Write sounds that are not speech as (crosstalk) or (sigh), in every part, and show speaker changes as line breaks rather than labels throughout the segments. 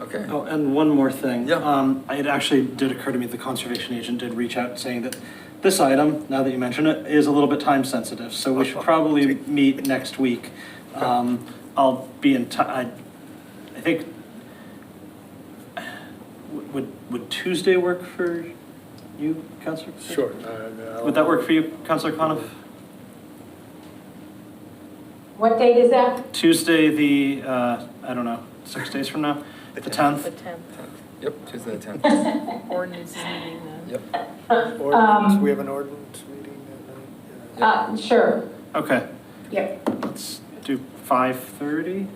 Okay.
Oh, and one more thing.
Yeah.
Um, it actually did occur to me, that the conservation agent did reach out saying that this item, now that you mention it, is a little bit time sensitive, so we should probably meet next week. Um, I'll be in ti- I, I think, would, would Tuesday work for you, Counselor?
Sure. uh,
Would that work for you, Counselor Coniff?
What date is that?
Tuesday, the, uh, I don't know, six days from now, the
The
10th?
10th.
Yep, Tuesday the 10th.
Ordinance is meeting then.
Yep.
Ordinance,
Um,
we have an ordinance meeting that night. yeah.
Uh, sure.
Okay,
Yep.
let's do 5:30?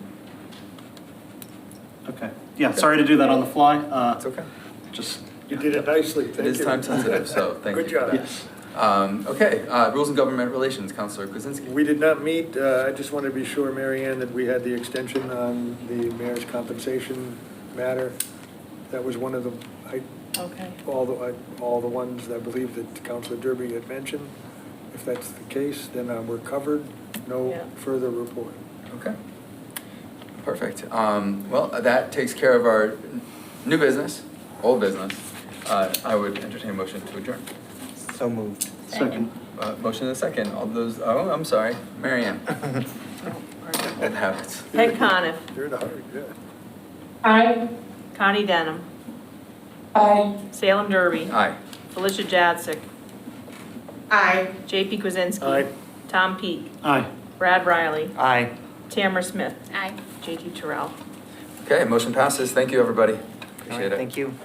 Okay, yeah, sorry to do that on the fly, uh,
It's okay.
just,
You did it nicely, thank you.
It is time sensitive, so thank you
Good
for that.
job.
yes.
Um, okay, uh, Rules and Government Relations, Counselor Kuzinski.
(laughs) We did not meet, uh, I just wanted to be sure, Mary Ann, that we had the extension on the mayor's compensation matter. That was one of the, I,
Okay.
all the, I- all the ones I believe that Councilor Derby had mentioned. If that's the case, then uh, we're covered,
Yeah.
no further report.
Okay. Perfect. Um, well, that takes care of our new business, old business. Uh, I would entertain a motion to adjourn.
So moved.
Second.
Uh, motion and a second. All those, oh, I'm sorry, Mary Ann. Old habits.
Peg Coniff,
You're in a hurry, yeah.
Aye.
Connie Denham,
Aye.
Salem Derby,
Aye.
Felicia Jadsick,
Aye.
JP Kwasinski.
Aye.
Tom Peak,
Aye.
Brad Riley,
Aye.
Tamara Smith,
Aye.
JT Terrell.
Okay, motion passes. Thank you, everybody.
All
Appreciate
right,
it.
Thank you.